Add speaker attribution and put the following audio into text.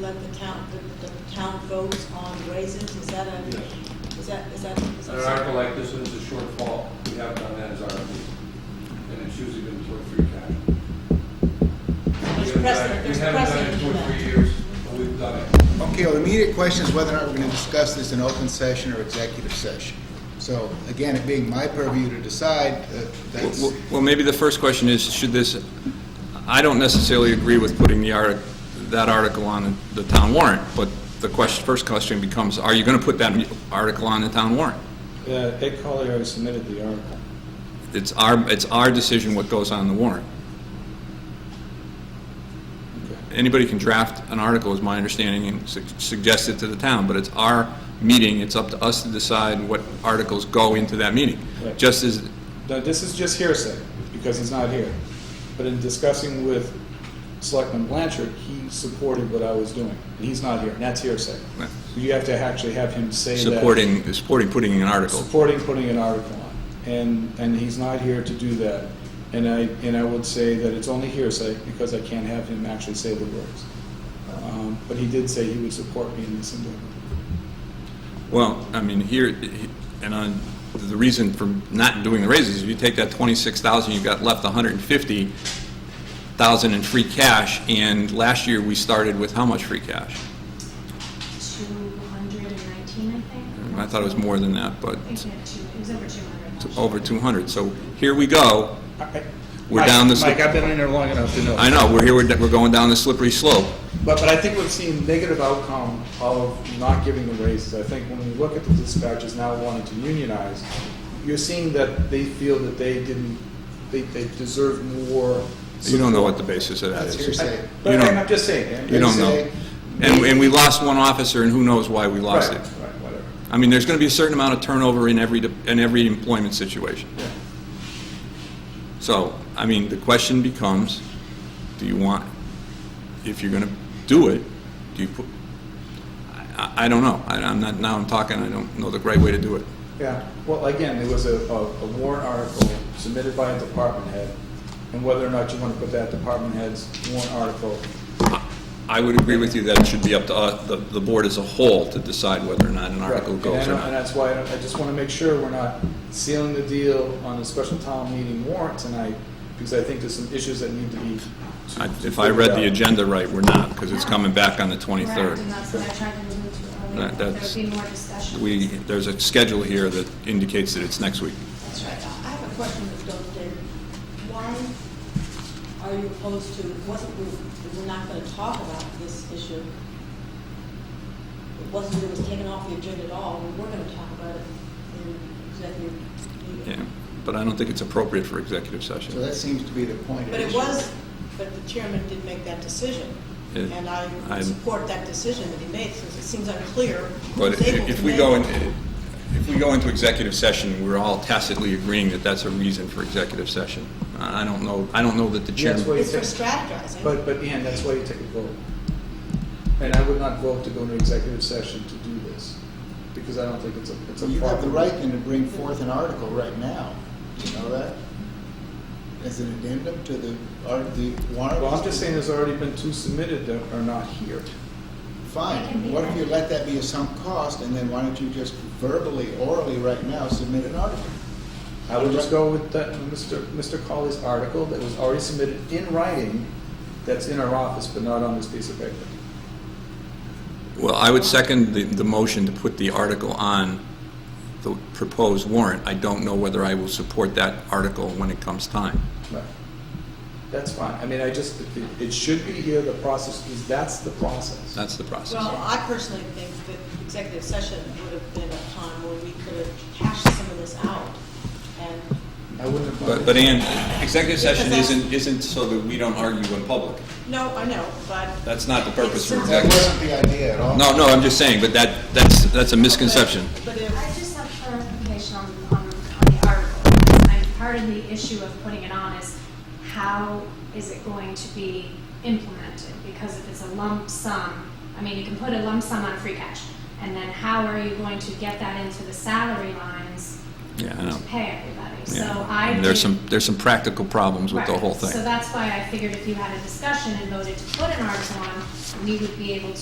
Speaker 1: let the town, the, the town votes on raises, is that a,
Speaker 2: Yes.
Speaker 1: is that, is that? is
Speaker 2: An
Speaker 1: that-
Speaker 2: article like this one is a shortfall, we have done that as RFP, and it's usually been toward free cash.
Speaker 1: There's
Speaker 2: We haven't done
Speaker 1: precedent,
Speaker 2: it-
Speaker 1: there's
Speaker 2: We haven't done
Speaker 1: precedent
Speaker 2: it
Speaker 1: to
Speaker 2: toward
Speaker 1: that.
Speaker 2: three years, but we've done it.
Speaker 3: Okay, well, the immediate question is whether or not we're going to discuss this in open session or executive session. So again, it being my purview to decide, uh, that's,
Speaker 4: Well, well, maybe the first question is, should this, I don't necessarily agree with putting the artic, that article on the town warrant, but the question, first question becomes, are you going to put that article on the town warrant?
Speaker 5: Yeah, Ed Collier already submitted the article.
Speaker 4: It's our, it's our decision what goes on the warrant.
Speaker 5: Okay.
Speaker 4: Anybody can draft an article, is my understanding, and su- suggest it to the town, but it's our meeting, it's up to us to decide what articles go into that meeting.
Speaker 5: Right.
Speaker 4: Just as,
Speaker 5: Now, this is just hearsay, because he's not here. But in discussing with Selectman Blanchard, he supported what I was doing, and he's not here, and that's hearsay.
Speaker 4: Right.
Speaker 5: So you have to actually have him say that.
Speaker 4: supporting, supporting putting an article.
Speaker 5: Supporting putting an article on, and, and he's not here to do that. And I, and I would say that it's only hearsay, because I can't have him actually say the words. Um, But he did say he would support me in this endeavor.
Speaker 4: Well, I mean, here, and on, the reason for not doing the raises, if you take that 26,000, you've got left 150,000 in free cash, and last year, we started with how much free cash?
Speaker 6: 219, I think.
Speaker 4: I thought it was more than that, but
Speaker 6: I think we had two, it was over 200.
Speaker 4: it's over 200. So here we go.
Speaker 5: I- I-
Speaker 4: We're
Speaker 5: Mike-
Speaker 4: down this-
Speaker 5: Mike, I've been in there long enough to know.
Speaker 4: I know, we're here, we're we're going down the slippery slope.
Speaker 5: But, but I think we've seen negative outcome of not giving the raises. I think when we look at the dispatchers now wanting to unionize, you're seeing that they feel that they didn't, they, they deserve more.
Speaker 4: You don't know what the
Speaker 5: support.
Speaker 4: basis of that
Speaker 3: that's
Speaker 4: is.
Speaker 3: hearsay.
Speaker 5: But
Speaker 4: You don't-
Speaker 5: I'm just saying.
Speaker 4: You don't know.
Speaker 3: Hearsay.
Speaker 4: And and we lost one officer, and who knows why we lost
Speaker 5: Right,
Speaker 4: it.
Speaker 5: right, whatever.
Speaker 4: I mean, there's going to be a certain amount of turnover in every, in every employment situation.
Speaker 5: Yeah.
Speaker 4: So, I mean, the question becomes, do you want, if you're going to do it, do you put, I, I I don't know. I- I'm not, now I'm talking, I don't know the right way to do it.
Speaker 5: Yeah, well, again, there was a, a a warrant article submitted by a department head, and whether or not you want to put that department head's warrant article
Speaker 4: I would agree with you that it should be up to us, the, the board as a whole to decide whether or not an
Speaker 5: Right,
Speaker 4: article
Speaker 5: and I
Speaker 4: goes or
Speaker 5: don't- And
Speaker 4: not.
Speaker 5: that's why I I just want to make sure we're not sealing the deal on a special town meeting warrant tonight, because I think there's some issues that need to be. to-
Speaker 4: I-
Speaker 5: to
Speaker 4: If I
Speaker 5: figured
Speaker 4: read the
Speaker 5: out.
Speaker 4: agenda right, we're not, because it's coming back on the
Speaker 6: Correct,
Speaker 4: 23rd.
Speaker 6: and that's what I tried to allude to
Speaker 4: That-
Speaker 6: earlier.
Speaker 4: that's-
Speaker 6: There'd be more discussion.
Speaker 4: We, there's a schedule here that indicates that it's next week.
Speaker 1: That's right. I I have a question, Dr. David. Why are you opposed to, wasn't, we we're not going to talk about this issue? It wasn't, it was taken off the agenda at all. We were going to talk about it in executive
Speaker 4: Yeah,
Speaker 1: meeting.
Speaker 4: but I don't think it's appropriate for executive
Speaker 3: So
Speaker 4: session.
Speaker 3: that seems to be the point. of
Speaker 1: But it
Speaker 3: issue.
Speaker 1: was, but the chairman did make that decision.
Speaker 4: Yeah,
Speaker 1: And I
Speaker 4: I'm-
Speaker 1: support that decision that he made since it seems unclear. who
Speaker 4: But
Speaker 1: was able
Speaker 4: if
Speaker 1: to
Speaker 4: we
Speaker 1: make
Speaker 4: go
Speaker 1: it.
Speaker 4: into, if we go into executive session, we're all tacitly agreeing that that's a reason for executive session. I I don't know, I don't know that the
Speaker 5: Yeah, that's
Speaker 4: chairman.
Speaker 5: what-
Speaker 1: It's for strategizing.
Speaker 5: But, but Ann, that's why you take a vote. And I would not vote to go into executive session to do this, because I don't think it's a, it's a.
Speaker 3: You have the
Speaker 5: proper-
Speaker 3: right then to bring forth an article right now, you know that? As an addendum to the, art the warrant.
Speaker 5: Well, I'm just saying there's already been two submitted that are not here.
Speaker 3: Fine, what if you let that be a sunk cost, and then why don't you just verbally, orally, right now, submit an article?
Speaker 5: I would just go with that, Mr. Mr. Colley's article that was already submitted in writing, that's in our office, but not on this piece of paper.
Speaker 4: Well, I would second the, the motion to put the article on the proposed warrant. I don't know whether I will support that article when it comes time.
Speaker 5: Right. That's fine. I mean, I just, it, it should be here, the process is, that's the process.
Speaker 4: That's the process.
Speaker 1: Well, I personally think that executive session would have been a time where we could have hashed some of this out. And
Speaker 5: I wouldn't have.
Speaker 4: But, but Ann, executive session
Speaker 1: Because that's-
Speaker 4: isn't, isn't so that we don't argue in public.
Speaker 1: no, I know, but
Speaker 4: That's not the purpose for
Speaker 1: It's-
Speaker 3: That
Speaker 4: executive. session.
Speaker 3: wasn't the idea at all.
Speaker 4: No, no, I'm just saying, but that, that's, that's a misconception.
Speaker 1: But
Speaker 6: I
Speaker 1: if,
Speaker 6: just have clarification on, on, on the article. And part of the issue of putting it on is how is it going to be implemented? Because if it's a lump sum, I mean, you can put a lump sum on free cash. And then how are you going to get that into the salary lines
Speaker 4: Yeah, I
Speaker 6: to
Speaker 4: know.
Speaker 6: pay everybody? So I.
Speaker 4: Yeah. There's
Speaker 6: did-
Speaker 4: some, there's some practical problems with the
Speaker 6: Right.
Speaker 4: whole thing.
Speaker 6: So that's why I figured if you had a discussion and voted to put an article on, we would be able to